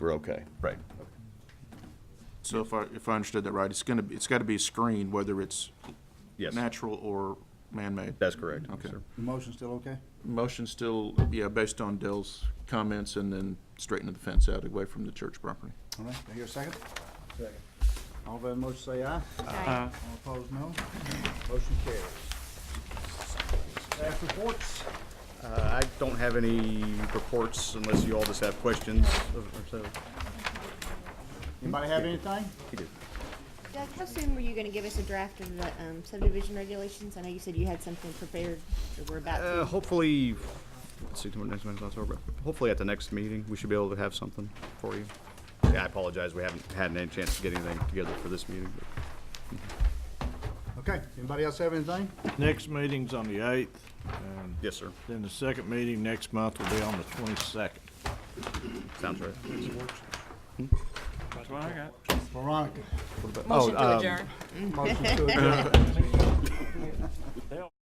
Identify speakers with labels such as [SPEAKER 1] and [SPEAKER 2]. [SPEAKER 1] we're okay.
[SPEAKER 2] Right.
[SPEAKER 3] So if I, if I understood that right, it's gonna, be it's gotta be screened, whether it's
[SPEAKER 2] Yes.
[SPEAKER 3] natural or man-made.
[SPEAKER 2] That's correct.
[SPEAKER 3] Okay.
[SPEAKER 2] sir.
[SPEAKER 4] The motion's still okay?
[SPEAKER 3] Motion still, yeah, based on Dell's comments and then straightening the fence out away from the church property.
[SPEAKER 4] All right, do I hear a second? Second. All in favor of the motion say aye.
[SPEAKER 5] Aye.
[SPEAKER 4] All opposed, no. Motion carries. Staff reports?
[SPEAKER 2] Uh, I don't have any reports unless you all just have questions of- or so.
[SPEAKER 4] Anybody have anything?
[SPEAKER 5] Doug, how soon were you gonna give us a draft of the um, subdivision regulations? I know you said you had something prepared, or we're about
[SPEAKER 2] Uh,
[SPEAKER 5] to.
[SPEAKER 2] hopefully, let's see, tomorrow, next month's October. Hopefully at the next meeting, we should be able to have something for you. Yeah, I apologize, we haven't had any chance to get anything together for this meeting. but-
[SPEAKER 4] Okay, anybody else have anything?
[SPEAKER 6] Next meeting's on the eighth, and
[SPEAKER 2] Yes, sir,
[SPEAKER 6] then the second meeting next month will be on the twenty-second.
[SPEAKER 2] sounds right.
[SPEAKER 4] Veronica?
[SPEAKER 2] Oh, um, Oh, uh,
[SPEAKER 4] Motion to adjourn.